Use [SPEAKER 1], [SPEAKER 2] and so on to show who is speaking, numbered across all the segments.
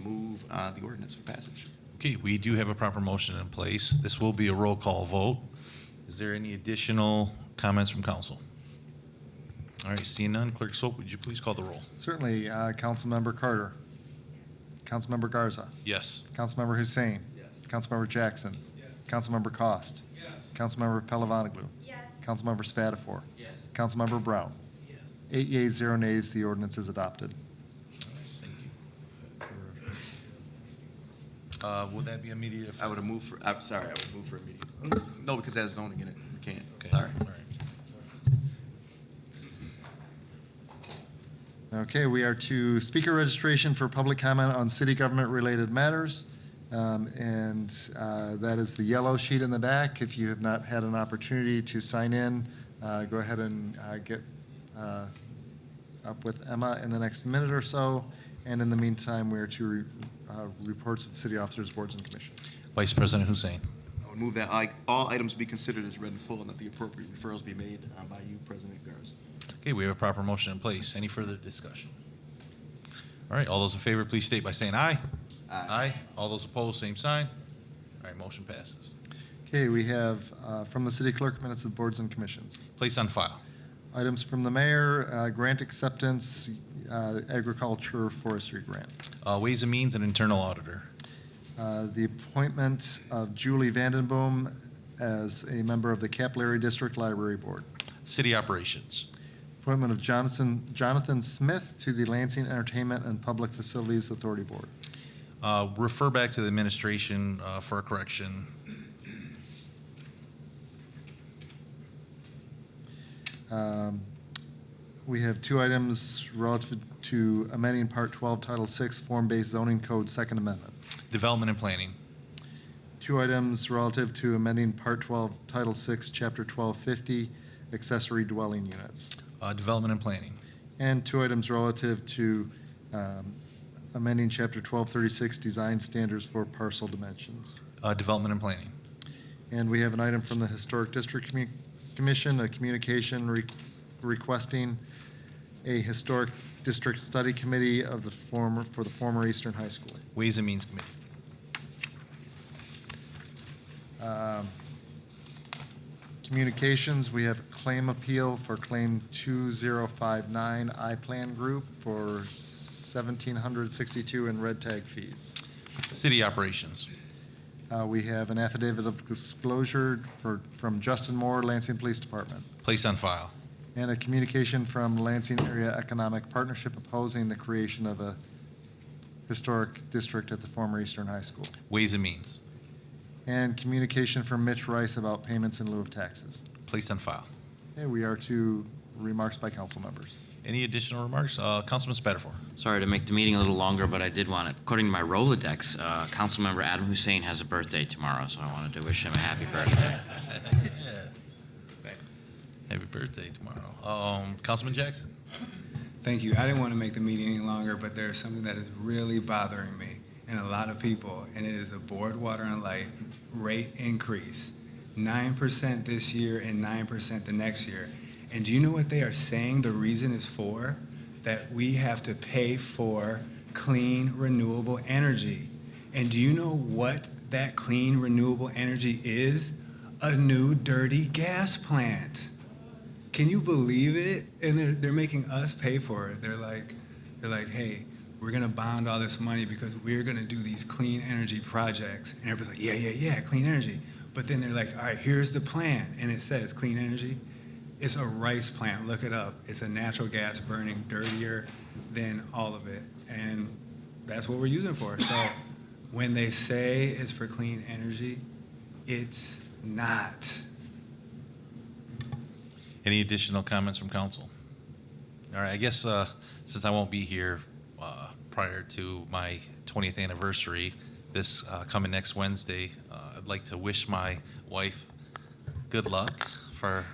[SPEAKER 1] move uh, the ordinance for passage.
[SPEAKER 2] Okay, we do have a proper motion in place. This will be a roll call vote. Is there any additional comments from council? All right, seeing none, Clerk Soap, would you please call the roll?
[SPEAKER 3] Certainly, uh, Councilmember Carter. Councilmember Garza.
[SPEAKER 2] Yes.
[SPEAKER 3] Councilmember Hussein. Yes. Councilmember Jackson. Yes. Councilmember Cost. Yes. Councilmember Palavaglu.
[SPEAKER 4] Yes.
[SPEAKER 3] Councilmember Spatafor. Yes. Councilmember Brown. Yes. Eight yeas, zero nays, the ordinance is adopted.
[SPEAKER 2] Thank you. Uh, Would that be immediate effect?
[SPEAKER 1] I would have moved for, I'm sorry, I would move for immediate. No, because that's zoning in it, we can't.
[SPEAKER 2] Okay,
[SPEAKER 1] Sorry.
[SPEAKER 2] all right.
[SPEAKER 3] Okay, we are to speaker registration for public comment on city government-related matters. Um, And uh, that is the yellow sheet in the back. If you have not had an opportunity to sign in, uh, go ahead and uh, get uh, up with Emma in the next minute or so. And in the meantime, we are to re- uh, reports of city officers, boards, and commissions.
[SPEAKER 2] Vice President Hussein.
[SPEAKER 1] I would move that I- all items be considered as read in full and that the appropriate referrals be made uh, by you, President Garza.
[SPEAKER 2] Okay, we have a proper motion in place. Any further discussion? All right, all those in favor, please state by saying aye.
[SPEAKER 1] Aye.
[SPEAKER 2] All those opposed, same sign. All right, motion passes.
[SPEAKER 3] Okay, we have uh, from the city clerk minutes of boards and commissions.
[SPEAKER 2] Place on file.
[SPEAKER 3] Items from the mayor, uh, grant acceptance, uh, agriculture, forestry grant.
[SPEAKER 2] Uh, Ways and Means and Internal Auditor.
[SPEAKER 3] Uh, The appointment of Julie Vandenboom as a member of the Capillary District Library Board.
[SPEAKER 2] City Operations.
[SPEAKER 3] Appointment of Jonathan, Jonathan Smith to the Lansing Entertainment and Public Facilities Authority Board.
[SPEAKER 2] Uh, Refer back to the administration uh, for a correction.
[SPEAKER 3] Um, We have two items relative to amending Part 12, Title 6, Form-Based Zoning Code, Second Amendment.
[SPEAKER 2] Development and Planning.
[SPEAKER 3] Two items relative to amending Part 12, Title 6, Chapter 1250, accessory dwelling units.
[SPEAKER 2] Uh, Development and Planning.
[SPEAKER 3] And two items relative to um, amending Chapter 1236, Design Standards for Parcel Dimensions.
[SPEAKER 2] Uh, Development and Planning.
[SPEAKER 3] And we have an item from the Historic District Commu- Commission, a communication re- requesting a Historic District Study Committee of the former, for the former Eastern High School.
[SPEAKER 2] Ways and Means Committee.
[SPEAKER 3] Um, Communications, we have a claim appeal for Claim 2059 I-Plan Group for 1762 in red tag fees.
[SPEAKER 2] City Operations.
[SPEAKER 3] Uh, We have an affidavit of disclosure for, from Justin Moore, Lansing Police Department,
[SPEAKER 2] Place on file.
[SPEAKER 3] and a communication from Lansing Area Economic Partnership opposing the creation of a historic district at the former Eastern High School,
[SPEAKER 2] Ways and Means.
[SPEAKER 3] and communication from Mitch Rice about payments in lieu of taxes.
[SPEAKER 2] Place on file.
[SPEAKER 3] Okay, we are to remarks by council members.
[SPEAKER 2] Any additional remarks? Uh, Councilman Spatafor.
[SPEAKER 5] Sorry to make the meeting a little longer, but I did want to, according to my Rolodex, uh, Councilmember Adam Hussein has a birthday tomorrow, so I wanted to wish him a happy birthday.
[SPEAKER 2] Happy birthday tomorrow. Um, Councilman Jackson.
[SPEAKER 6] Thank you. I didn't want to make the meeting any longer, but there is something that is really bothering me and a lot of people, and it is the board water and light rate increase. Nine percent this year and nine percent the next year. And do you know what they are saying the reason is for? That we have to pay for clean renewable energy. And do you know what that clean renewable energy is? A new dirty gas plant. Can you believe it? And they're, they're making us pay for it. They're like, they're like, hey, we're gonna bond all this money because we're gonna do these clean energy projects. And everybody's like, yeah, yeah, yeah, clean energy. But then they're like, all right, here's the plan, and it says clean energy. It's a rice plant. Look it up. It's a natural gas burning dirtier than all of it, and that's what we're using it for. So when they say it's for clean energy, it's not.
[SPEAKER 2] Any additional comments from council? All right, I guess uh, since I won't be here uh, prior to my 20th anniversary, this uh, coming next Wednesday, uh, I'd like to wish my wife good luck for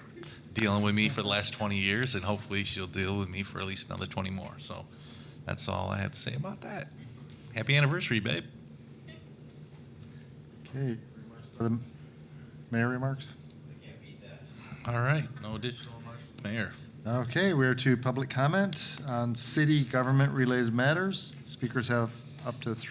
[SPEAKER 2] dealing with me for the last 20 years, and hopefully she'll deal with me for at least another 20 more. So that's all I have to say about that. Happy anniversary, babe.
[SPEAKER 3] Okay, the mayor remarks?
[SPEAKER 2] All right, no additional remarks, from Mayor.
[SPEAKER 3] Okay, we are to public comment on city government-related matters. Speakers have up to three